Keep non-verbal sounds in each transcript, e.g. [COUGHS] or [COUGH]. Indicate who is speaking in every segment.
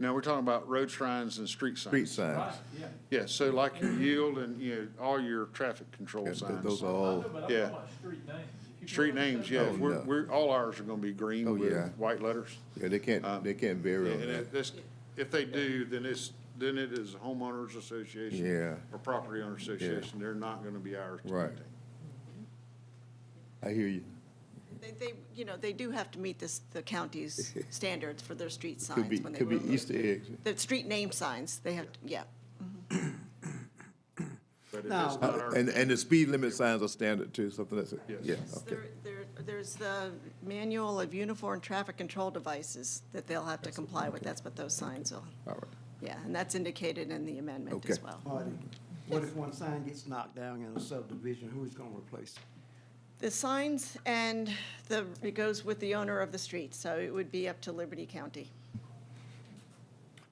Speaker 1: Now, we're talking about road signs and street
Speaker 2: street
Speaker 1: signs.
Speaker 2: signs.
Speaker 3: yeah.
Speaker 1: Oh, Yeah, so like your yield and, you know, all your traffic control
Speaker 2: Yeah, th-
Speaker 1: signs.
Speaker 2: Those are
Speaker 3: I know,
Speaker 2: all,
Speaker 3: but I'm talking
Speaker 1: yeah.
Speaker 3: about street names. If you
Speaker 1: Street
Speaker 3: put
Speaker 1: names,
Speaker 3: something-
Speaker 1: yeah,
Speaker 2: Oh,
Speaker 1: we're,
Speaker 2: no.
Speaker 1: we're, all ours are gonna be
Speaker 2: Oh,
Speaker 1: green
Speaker 2: yeah.
Speaker 1: with white letters.
Speaker 2: yeah, they
Speaker 1: Uh,
Speaker 2: can't, they can't vary on
Speaker 1: And
Speaker 2: that.
Speaker 1: it- that's, if they do, then it's, then it is homeowners association.
Speaker 2: Yeah.
Speaker 1: Or property owner association, they're not gonna be ours to
Speaker 2: Right.
Speaker 1: maintain.
Speaker 2: I hear you.
Speaker 4: They, they, you know, they do have to meet this,
Speaker 2: [LAUGHS]
Speaker 4: the county's standards for their street signs.
Speaker 2: Could be,
Speaker 4: when they
Speaker 2: could be
Speaker 4: remove-
Speaker 2: Easter eggs.
Speaker 4: The street name signs, they have, to- yeah.
Speaker 1: But it is
Speaker 5: Now-
Speaker 1: not
Speaker 2: Uh,
Speaker 1: our,
Speaker 2: And, and the speed limit signs are standard too, something that's,
Speaker 1: Yes.
Speaker 2: yeah,
Speaker 1: Yes,
Speaker 2: okay.
Speaker 4: There- There, there's the manual of uniform traffic control devices that they'll have to comply with. That's what those signs will,
Speaker 2: All right.
Speaker 4: yeah, and that's indicated in the amendment as
Speaker 2: Okay.
Speaker 4: well.
Speaker 5: Marty, what if one sign gets knocked down in a subdivision, who's gonna replace it?
Speaker 4: The signs and the, it goes with the owner of the street, so it would be up to Liberty County.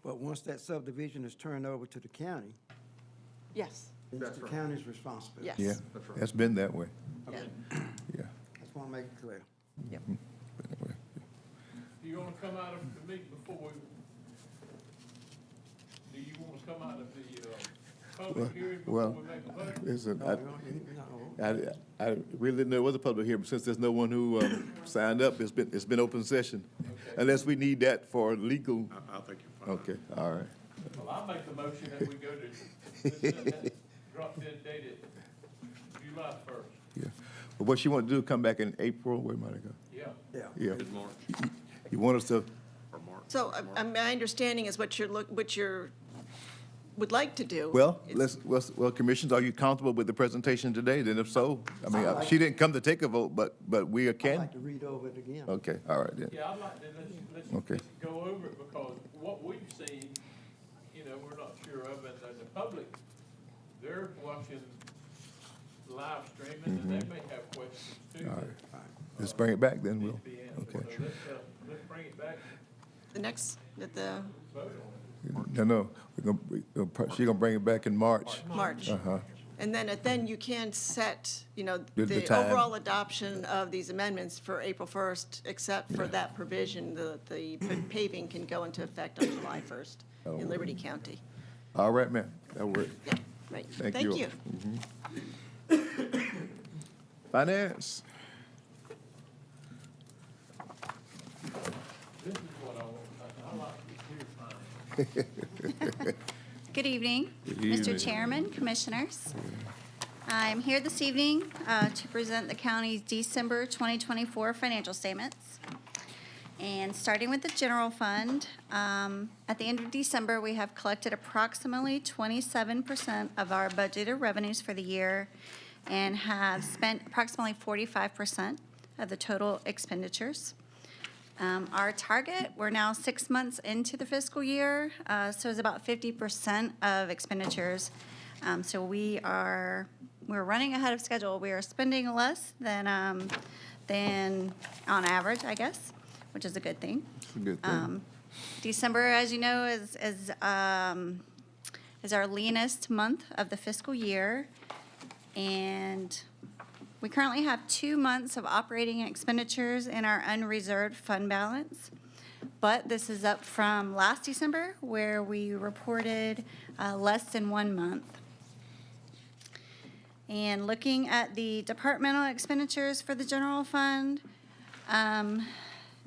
Speaker 5: But once that subdivision is turned over to the county,
Speaker 4: Yes,
Speaker 5: then it's
Speaker 1: That's
Speaker 5: the
Speaker 1: right.
Speaker 5: county's responsibility.
Speaker 4: yes.
Speaker 2: Yeah,
Speaker 1: That's right.
Speaker 2: that's been that way,
Speaker 4: yeah.
Speaker 2: yeah.
Speaker 5: I just wanna make it clear.
Speaker 2: been that way.
Speaker 3: You gonna come out of the meeting before we, do you wanna come out of the, uh, public hearing before
Speaker 2: well,
Speaker 3: we make a vote?
Speaker 2: Listen,
Speaker 5: No,
Speaker 2: I,
Speaker 5: you don't- no.
Speaker 2: I, I really didn't know it was a public hearing, but since there's no one who,
Speaker 4: [COUGHS]
Speaker 2: um, signed up, it's been, it's been open session. Unless we need that for legal,
Speaker 1: I, I think you're fine.
Speaker 2: okay, all right.
Speaker 3: Well, I make the motion that we go to, [LAUGHS] let's set that drop dead date at July first,
Speaker 2: Yeah. But what you want to do, come back in April, where might I go?
Speaker 3: yeah.
Speaker 5: Yeah.
Speaker 2: Yeah,
Speaker 1: March
Speaker 2: you want us to,
Speaker 1: or March.
Speaker 4: So uh, uh, my understanding is what you're, look- what you're, would like to do.
Speaker 2: well,
Speaker 4: is-
Speaker 2: let's, well, s- well, commissions, are you comfortable with the presentation today? Then if so, I mean, uh, she didn't come to take a vote, but, but we
Speaker 5: I'd
Speaker 2: can?
Speaker 5: like to read over it again.
Speaker 2: Okay, all right then.
Speaker 3: Yeah, I'd like to, let's, let's,
Speaker 2: Okay.
Speaker 3: let's go over it, because what we've seen, you know, we're not sure of, and the- the public, they're watching live streaming, and they may have questions too.
Speaker 2: Mm-hmm. All right.
Speaker 3: that
Speaker 2: Let's bring it back then,
Speaker 3: need
Speaker 2: we'll,
Speaker 3: to be answered.
Speaker 2: okay.
Speaker 3: So let's, uh, let's bring it back and
Speaker 4: The next, at the
Speaker 3: vote on
Speaker 2: No, no, we're gonna, we're gonna pro- she gonna bring it back in March.
Speaker 4: March.
Speaker 2: Uh-huh.
Speaker 4: And then, at- then you can set, you know,
Speaker 2: The- the
Speaker 4: the
Speaker 2: time.
Speaker 4: overall adoption of these amendments for April 1st, except for that provision, the,
Speaker 2: [CLEARS THROAT]
Speaker 4: the paving can go into effect on July 1st
Speaker 2: Oh.
Speaker 4: in Liberty County.
Speaker 2: All right, ma'am, that worked.
Speaker 4: Yeah, right.
Speaker 2: Thank
Speaker 4: Thank
Speaker 2: you.
Speaker 4: you.
Speaker 2: Finance,
Speaker 3: it. This is what I want, I, I like to hear from you.
Speaker 6: Good evening,
Speaker 2: evening.
Speaker 6: Mr. Chairman, Commissioners. I'm here this evening uh, to present the county's December 2024 financial statements. And starting with the general fund, um, at the end of December, we have collected approximately 27% of our budgeted revenues for the year and have spent approximately 45% of the total expenditures. Um, Our target, we're now six months into the fiscal year, uh, so it's about 50% of expenditures. Um, So we are, we're running ahead of schedule. We are spending less than, um, than on average, I guess, which is a good thing.
Speaker 2: a good
Speaker 6: Um,
Speaker 2: thing.
Speaker 6: December, as you know, is, is, um, is our leanest month of the fiscal year. And we currently have two months of operating expenditures in our unreserved fund balance. But this is up from last December, where we reported, uh, less than one month. And looking at the departmental expenditures for the general fund, um,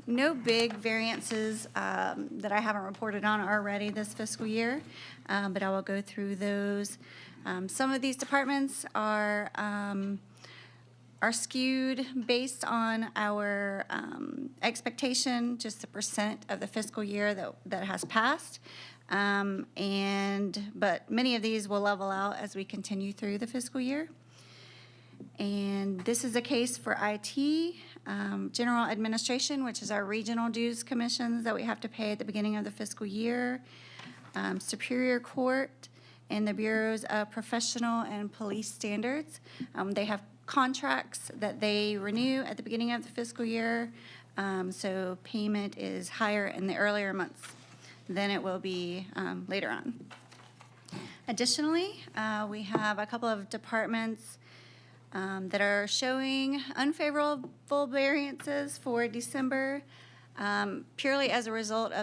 Speaker 6: no big variances um, that I haven't reported on already this fiscal year, um, but I will go through those. Um, Some of these departments are, um, are skewed based on our um, expectation, just the percent of the fiscal year that, that has passed. Um, And, but many of these will level out as we continue through the fiscal year. And this is a case for IT, um, general administration, which is our regional dues commissions that we have to pay at the beginning of the fiscal year, um, Superior Court, and the Bureaus of Professional and Police Standards. Um, They have contracts that they renew at the beginning of the fiscal year, um, so payment is higher in the earlier months than it will be um, later on. Additionally, uh, we have a couple of departments um, that are showing unfavorable variances for December um, purely as a result of